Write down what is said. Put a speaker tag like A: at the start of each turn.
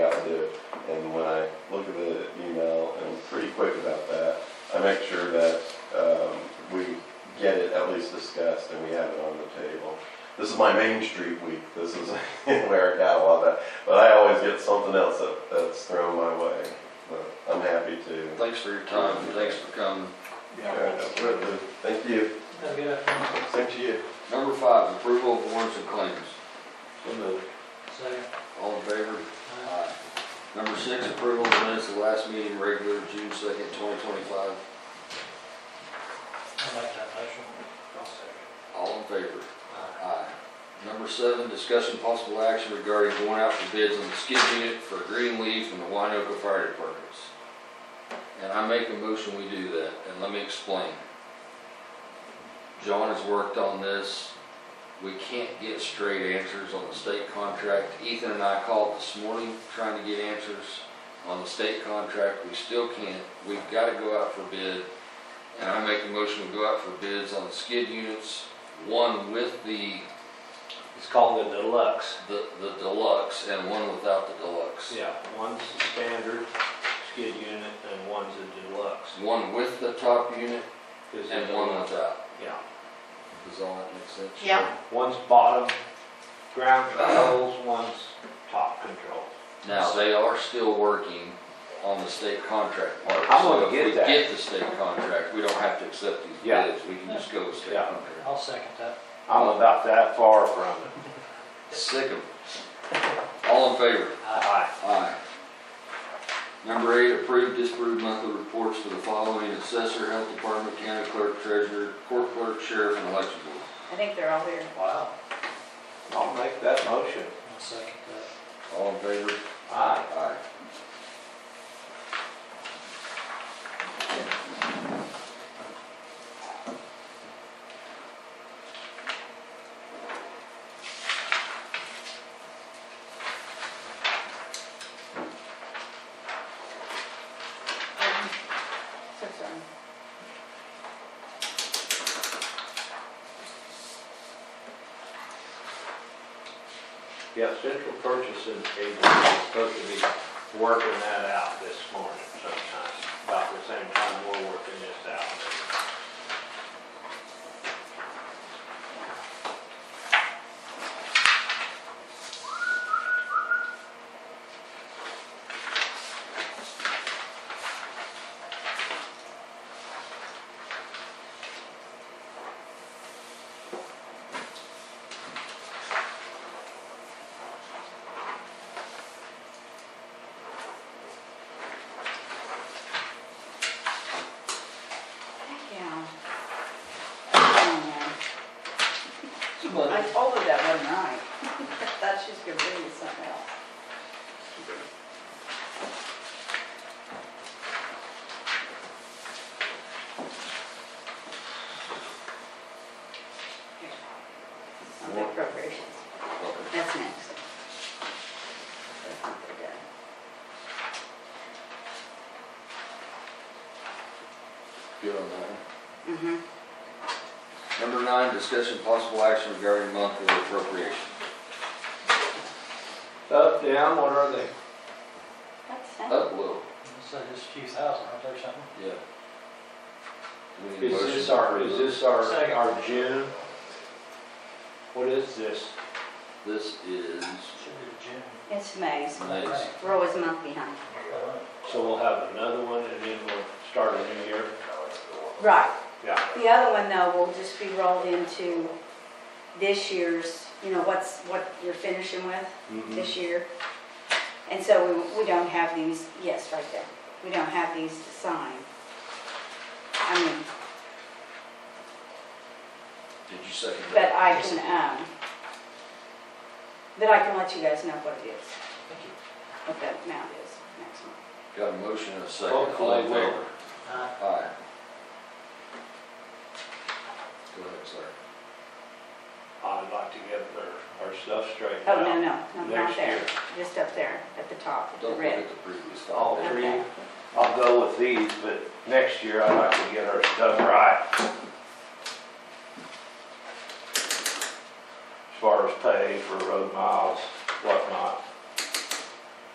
A: make sure that um, we get it at least discussed and we have it on the table. This is my Main Street week, this is where I got a lot of that, but I always get something else that- that's thrown my way. But I'm happy to.
B: Thanks for your time, thanks for coming.
A: Yeah, absolutely. Thank you.
C: Have a good afternoon.
A: Same to you.
B: Number five, approval of warrants and claims.
C: Second.
B: All in favor?
C: Aye.
B: Aye. Number six, approval of minutes of last meeting, regular June second, twenty twenty-five.
C: I'll make that motion. I'll second.
B: All in favor?
C: Aye.
B: Aye. uh, Number seven, discussion possible action regarding going out for bids on the skid unit for green leaf and the Winoka Fire Departments. And I make a motion we do that, and let me explain. John has worked on this. We can't get straight answers on the state contract. Ethan and I called this morning trying to get answers on the state contract. We still can't. We've got to go out for bid. And I make a motion we go out for bids on the skid units, one with the
D: It's called the deluxe.
B: the, the deluxe and one without the deluxe.
D: Yeah, one's the standard skid unit and one's a deluxe.
B: One with the top unit
D: Is it-
B: and one without.
D: Yeah,
B: Does all that make sense?
E: Yeah.
D: one's bottom ground controls, one's top control.
B: Now, they are still working on the state contract part.
D: I'm gonna get
B: So if
D: that.
B: we get the state contract, we don't have to accept these
D: Yeah.
B: bids. We can just go with state
D: Yeah.
B: contract.
C: I'll second that.
D: I'm about that far from it.
B: Sick of 'em. All in favor?
D: Aye.
B: Aye. Number eight, approve, disapprove monthly reports for the following assessor, health department, county clerk, treasurer, court clerk, sheriff, and election board.
E: I think they're all here.
D: Wow. I'll make that motion.
C: I'll second that.
B: All in favor?
D: Aye.
B: Aye.
E: So sorry.
D: Yeah, central purchasing agency is supposed to be working that out this morning sometime, about the same time we're working this out.
E: Heck, yeah. Oh, no. I told her that wasn't right. I thought she was gonna bring you something else. On the appropriations. That's next. That's what they did.
B: Good on that one.
E: Mm-hmm.
B: Number nine, discussion possible action regarding monthly appropriation.
D: Up, down, what are they?
E: That's
D: Oh.
E: next.
B: Up a little,
C: So just a few thousand, right there, something.
B: Oh, yeah. We need a
D: Is
B: motion
D: this
B: to
D: our,
B: approve
D: is
B: those.
D: this our,
C: Second.
D: our June? What is this?
B: This is
C: Should be the gym.
E: It's May's.
B: May's.
E: We're always a month behind.
D: So we'll have another one and then we'll start a new year?
E: Right.
D: Yeah.
E: The other one, though, will just be rolled into this year's, you know, what's, what you're finishing with
D: Mhm.
E: this year. And so we, we don't have these, yes, right there. We don't have these to sign. I mean,
B: Did you second that?
E: but I can, um, but I can let you guys know what it is,
C: Thank you.
E: what that amount is next month.
B: Got a motion and a second.
D: Hopefully
B: All in
D: we'll-
B: favor?
C: Aye.
B: Aye. Go ahead, sir.
D: I'd like to get our, our stuff straightened
E: Oh, no,
D: out.
E: no, no, not
D: Next
E: there.
D: year.
E: Just up there at the top, the
B: Don't look
E: red.
B: at the previous
D: All
B: thought.
D: three,
E: Okay.
D: I'll go with these, but next year I'd like to get our stuff right. As far as pay for road miles, whatnot.